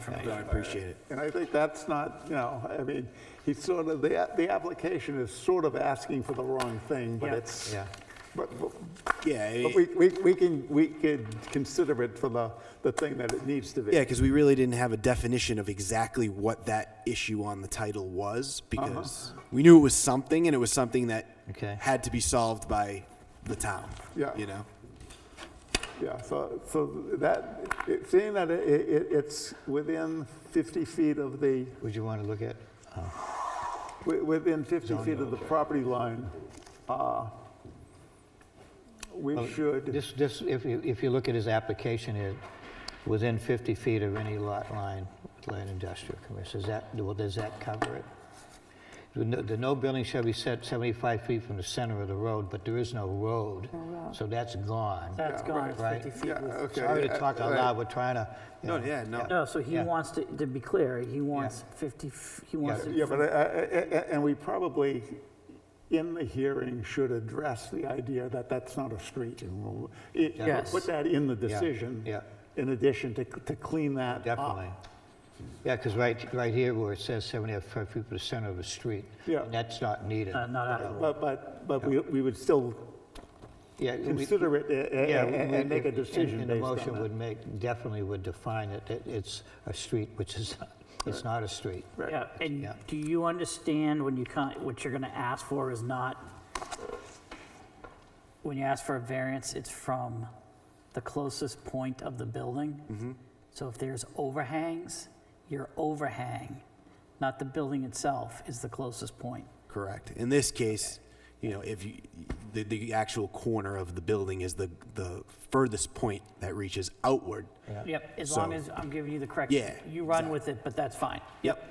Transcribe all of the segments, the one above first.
from Thanks, Doug. I appreciate it. And I think that's not, you know, I mean, he's sort of, the, the application is sort of asking for the wrong thing, but Yeah. it's, Yeah. but, but Yeah, but it- we, we, we can, we could consider it for the, the thing that it needs to be. yeah, because we really didn't have a definition of exactly what that issue on the title was because we knew it was something and it was something that Okay. had to be solved by the town. Yeah. You know? Yeah, so, so that, it- seeing that it, it, it's within 50 feet of the, Would you want to look at? wi- within 50 feet of the property line, uh, we should, This, this, if you, if you look at his application, it, within 50 feet of any lot line, with land industrial commercial, is that, well, does that cover it? The no- the no building shall be set 75 feet from the center of the road, but there is no road, so that's gone. Uh, That's gone, it's right. 50 feet. Yeah, was- okay. Sorry to talk out Right. loud, we're trying to. you No, know, yeah, no. No, Oh, so he Yeah. wants to, to be clear, he wants 50, f- he wants yeah, to, but, I- I- I- and we probably, in the hearing, should address the idea that that's not a street. and we'll- it- we'll Yes. Put that in the decision. yeah. In addition to, to clean that up. Definitely. Uh, Yeah, because right, right here where it says 75 feet from the center of the street. Yeah. and That's not needed. uh, not applicable. But, but, but we, we would still Yeah, we- consider it a- a- Yeah, a- we- and make a and- decision And the based on motion that. would make, definitely would define it, that it's a street, which is, it's not a street. Yeah, and Yeah. do you understand when you con what you're gonna ask for is not, when you ask for a variance, it's from the closest point of the building? So if there's overhangs, your overhang, not the building itself, is the closest point. Correct. In this case, you know, if you, the, the actual corner of the building is the, the furthest point that reaches outward. Yep, as long So- as I'm giving you the correct. Yeah, You run with it, but that's fine. Yep.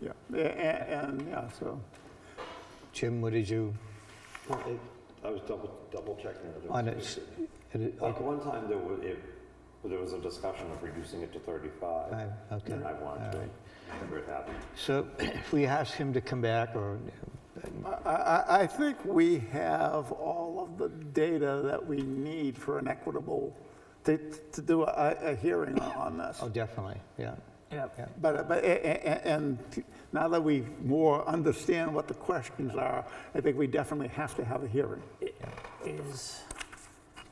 Yeah, a- a- Eh, and, yeah, so, Jim, what did you, I was double, double checking. that it was on it, 50. it- Like one time there was, it, there was a discussion of reducing it to thirty-five. Five, okay, And I wanted to, alright. remember it happened. so if we ask him to come back, or, I, Mm. I, I think we have all of the data that we need for an equitable, to, to do a, a hearing on this. oh, definitely, yeah. Yep. But, but, a- a- a- and now that we more understand what the questions are, I think we definitely have to have a hearing. Is,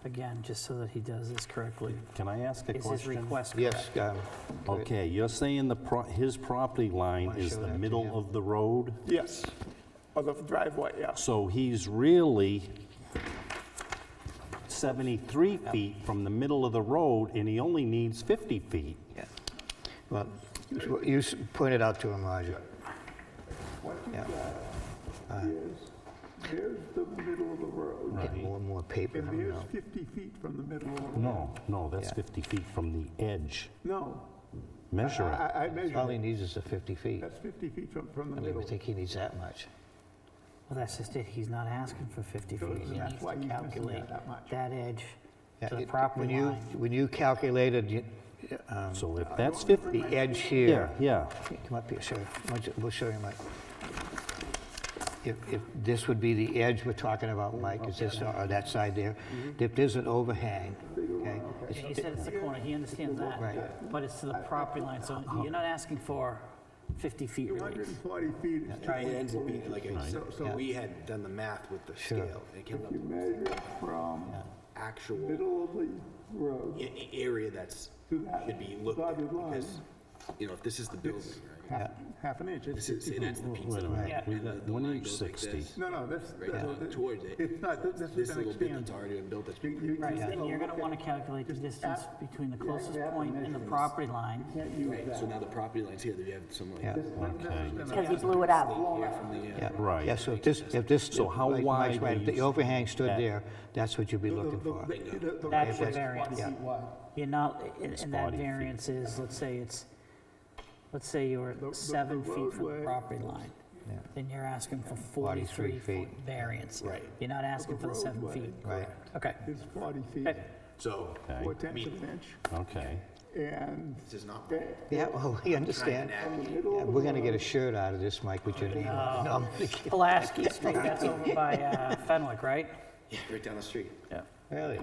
again, just so that he does this correctly, Can I ask a is his question? request correct? Yes, um, Okay, you're saying the, pro- his property line Wanna is show the that to him? middle of the road? Yes, of the driveway, yes. So he's really 73 feet from the middle of the road, and he only needs 50 feet. yeah. well, you s- pointed out to him, Roger. Yeah, Here's the middle of the road, Get more and more paper, I and don't here's know. 50 feet from the middle of the road. No, no, that's Yeah. 50 feet from the edge. No, I, Measure it. I I All measured, he it. needs is the 50 feet. that's 50 feet from, from I the mean, middle. we think he needs that much. Well, that's just it, he's not asking for 50 feet, he that's needs why to he's missing that calculate that much. that edge Yeah, to the it- property when you- line. When you calculated you- uh, So if that's 50, the edge yeah, here, yeah. come up here, sir, Why don't you- we'll show you, Mike. If, if this would be the edge we're talking about, Mike, is this, or that side there, if there's an overhang, okay? it's- He said it's the corner, he understands that, Right. Uh-huh. but it's to the property line, so you're not asking for 50 feet relief. 140 feet is It ends up being like, a- so, so Yeah. we had done the math with the scale. It came up You with measure from actual middle of the road, a- a- area that's, To that should be looked at. dotted line. Because, you know, if this is the building, right? half, half an inch. This is, say that's the pizza. Wait a right? minute, we And the- got the one line inch goes like 60. this, No, no, this, Right, the- the- towards it. it's not, this- this This has been little bit that's expanded. already been built, that's You- you- Right, you gotta and you're look gonna wanna at- calculate the just distance app- between the yeah, you closest have to point and the measure this. property line. Can't use right. that. So now the property line's here, you have some like. Yeah. This- this has been Because he expanded. blew it out. Here from the, uh, Yeah, Right. Yeah, so if this, if this. So how like Mike's wide right, If is the overhang stood that? there, that's what you'd be looking The- for. the- the- the- That's the- the variance. feet wide. You're not, and- and that 40 feet. variance is, let's say it's, let's say you're the seven feet from the roadway- property line. Then you're asking for 43 43 foot feet. variance. Right. You're not asking for the seven roadway. feet. Right. Okay. It's 40 feet, Okay. So, Okay, four tenths of an inch, okay. and this is not. Yeah, well, we understand. Yeah, We're gonna get a shirt out of this, Mike, with your name on it. No, I'm kidding. Pulaski Street, that's over by uh, Fenwick, right? Right down the street. Yeah. Really?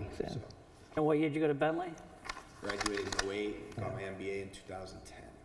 And what year did you go to Bentley? oh Graduated in 08, got my MBA in 2010.